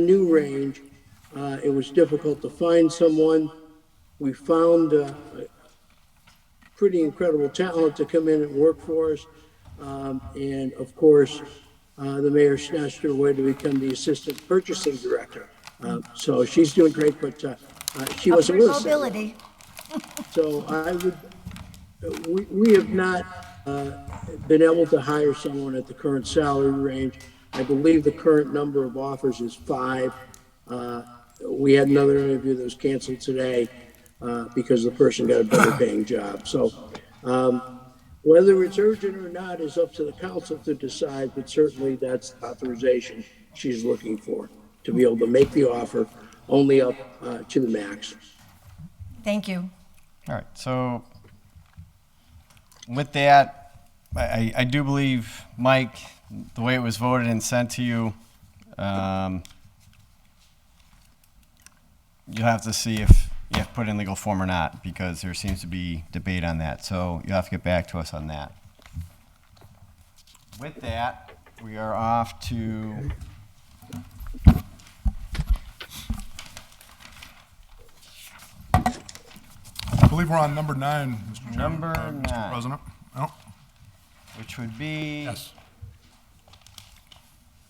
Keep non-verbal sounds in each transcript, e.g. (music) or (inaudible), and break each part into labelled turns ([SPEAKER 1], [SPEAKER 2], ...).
[SPEAKER 1] new range, uh, it was difficult to find someone. We found uh, a pretty incredible talent to come in and work for us. Um, And of course, uh, the mayor snatched her away to become the assistant purchasing director. Uh, So she's doing great, but uh, uh, she wasn't
[SPEAKER 2] Upward
[SPEAKER 1] with us. that long.
[SPEAKER 2] mobility.
[SPEAKER 1] So I would, we, we have not uh, been able to hire someone at the current salary range. I believe the current number of offers is five. Uh, We had another interview that was canceled today uh, because the person got a better paying job. So um, whether it's urgent or not is up to the council to decide, but certainly that's the authorization she's looking for, to be able to make the offer only up uh, to the max.
[SPEAKER 2] Thank you.
[SPEAKER 3] All right, so with that, I, I- I do believe, Mike, the way it was voted and sent to you, um, you'll have to see if you have to put it in legal form or not, because there seems to be debate on that, so you'll have to get back to us on that. With that, we are off to
[SPEAKER 4] I believe we're on number nine, Mr. Chairman.
[SPEAKER 3] Number
[SPEAKER 4] uh,
[SPEAKER 3] nine.
[SPEAKER 4] Mr. President. Oh, No?
[SPEAKER 3] which would be.
[SPEAKER 4] Yes.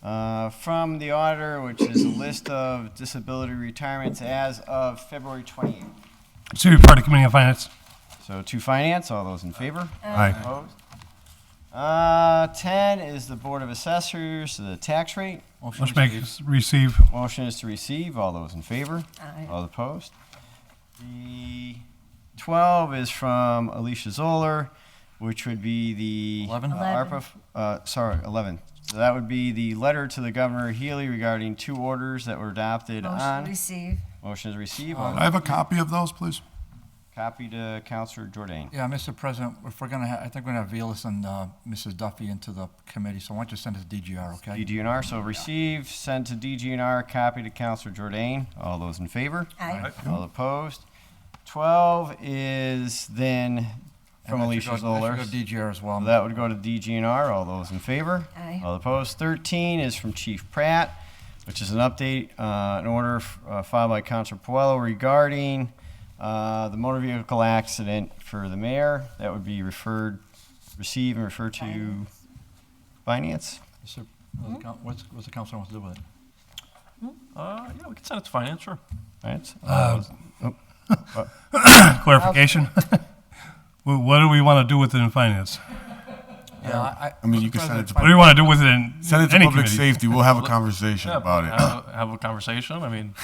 [SPEAKER 3] Uh, from the auditor, which is a list of disability retirements as of February 28th.
[SPEAKER 5] To Party Committee on Finance.
[SPEAKER 3] So to finance, all those in favor?
[SPEAKER 5] Aye.
[SPEAKER 3] Opposed? Uh, 10 is the Board of Assessors, the tax rate.
[SPEAKER 5] Motion make is receive.
[SPEAKER 3] Motion is to receive, all those in favor?
[SPEAKER 2] Aye.
[SPEAKER 3] All opposed? The 12 is from Alicia Zoller, which would be the.
[SPEAKER 6] 11?
[SPEAKER 3] uh,
[SPEAKER 2] Eleven.
[SPEAKER 3] ARPA, f- uh, sorry, 11. So that would be the letter to the Governor Healy regarding two orders that were adopted
[SPEAKER 2] Motion
[SPEAKER 3] on.
[SPEAKER 2] to receive.
[SPEAKER 3] Motion is received.
[SPEAKER 4] Can I have a copy of those, please?
[SPEAKER 3] Copy to Counselor Jordan.
[SPEAKER 6] Yeah, Mr. President, if we're gonna, ha- I think we're gonna have Velez and uh, Mrs. Duffy into the committee, so why don't you send us DGR, okay?
[SPEAKER 3] DGNR, so receive, send to DGNR, copy to Counselor Jordan. All those in favor?
[SPEAKER 2] Aye.
[SPEAKER 3] All opposed? 12 is then from
[SPEAKER 6] And that
[SPEAKER 3] Alicia
[SPEAKER 6] should go-
[SPEAKER 3] Zoller.
[SPEAKER 6] that should go DGR as well.
[SPEAKER 3] That would go to DGNR. All those in favor?
[SPEAKER 2] Aye.
[SPEAKER 3] All opposed? 13 is from Chief Pratt, which is an update, uh, an order f- uh, filed by Counselor Puello regarding uh, the motor vehicle accident for the mayor. That would be referred, receive and refer to finance.
[SPEAKER 6] Mr. uh, coun- What's, what's the council wants to do with it?
[SPEAKER 7] Uh, yeah, we can send it to finance, sure.
[SPEAKER 3] All right. Uh,
[SPEAKER 5] Clarification. (laughs) Wha- What do we want to do with it in finance?
[SPEAKER 6] Yeah, I.
[SPEAKER 8] I mean, you can send it to-
[SPEAKER 5] What do we want to do with it in
[SPEAKER 8] Send it to
[SPEAKER 5] any
[SPEAKER 8] public
[SPEAKER 5] committee?
[SPEAKER 8] safety. We'll have a conversation
[SPEAKER 7] Yeah,
[SPEAKER 8] about it.
[SPEAKER 7] Have a, have a conversation.
[SPEAKER 8] (laughs)
[SPEAKER 7] I mean,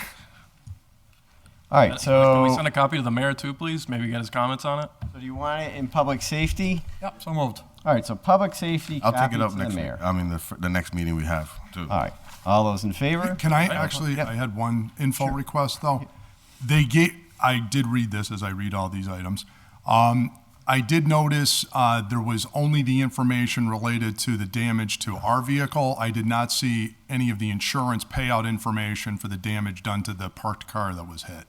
[SPEAKER 3] All right.
[SPEAKER 7] can we
[SPEAKER 3] So,
[SPEAKER 7] send a copy to the mayor too, please? Maybe get his comments on it.
[SPEAKER 3] so do you want it in public safety?
[SPEAKER 6] Yep, so moved.
[SPEAKER 3] All right. So public safety.
[SPEAKER 8] I'll take
[SPEAKER 3] copy
[SPEAKER 8] it up
[SPEAKER 3] to
[SPEAKER 8] next
[SPEAKER 3] the
[SPEAKER 8] week.
[SPEAKER 3] mayor.
[SPEAKER 8] I mean, the, fir- the next meeting we have too.
[SPEAKER 3] All right. All those in favor?
[SPEAKER 4] Can I actually, I had one info request, though. They gave, I did read this as I read all these items. Um, I did notice uh, there was only the information related to the damage to our vehicle. I did not see any of the insurance payout information for the damage done to the parked car that was hit.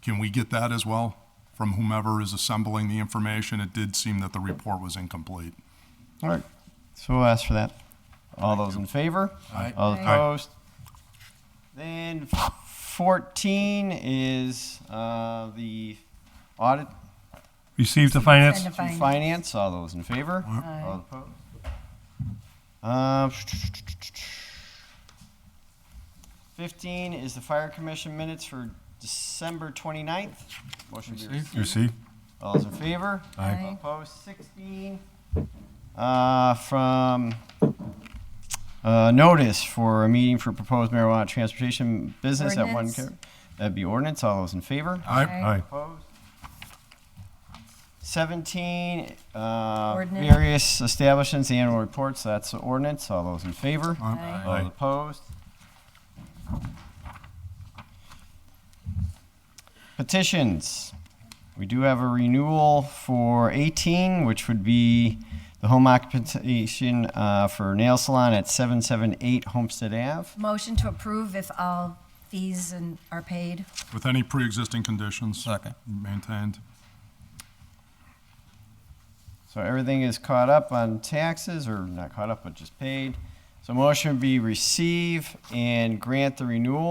[SPEAKER 4] Can we get that as well from whomever is assembling the information? It did seem that the report was incomplete.
[SPEAKER 3] All right. So we'll ask for that. All those in favor?
[SPEAKER 6] Aye.
[SPEAKER 3] All
[SPEAKER 2] Aye.
[SPEAKER 3] opposed? Then 14 is uh, the audit
[SPEAKER 5] Receive the finance.
[SPEAKER 2] Send to
[SPEAKER 3] to
[SPEAKER 2] fin-
[SPEAKER 3] finance. All those in favor? All opposed? Uh, 15 is the fire commission minutes for December 29th. Motion to be received.
[SPEAKER 8] You see?
[SPEAKER 3] All those in favor?
[SPEAKER 2] Aye.
[SPEAKER 3] All Opposed, 16. Uh, From uh, notice for a meeting for proposed marijuana transportation business at one.
[SPEAKER 2] Ordinance.
[SPEAKER 3] co- That'd be ordinance. All those in favor?
[SPEAKER 8] Aye.
[SPEAKER 2] Aye.
[SPEAKER 3] Opposed? 17, uh,
[SPEAKER 2] Ordinance.
[SPEAKER 3] various establishments, annual reports. That's the ordinance. All those in favor?
[SPEAKER 2] Aye.
[SPEAKER 3] All opposed? Petitions. We do have a renewal for 18, which would be the home occupation uh, for nail salon at 778 Homestead Ave.
[SPEAKER 2] Motion to approve if all fees and are paid.
[SPEAKER 4] With any pre-existing conditions
[SPEAKER 6] Second.
[SPEAKER 4] maintained?
[SPEAKER 3] So everything is caught up on taxes, or not caught up, but just paid. So motion would be receive and grant the renewal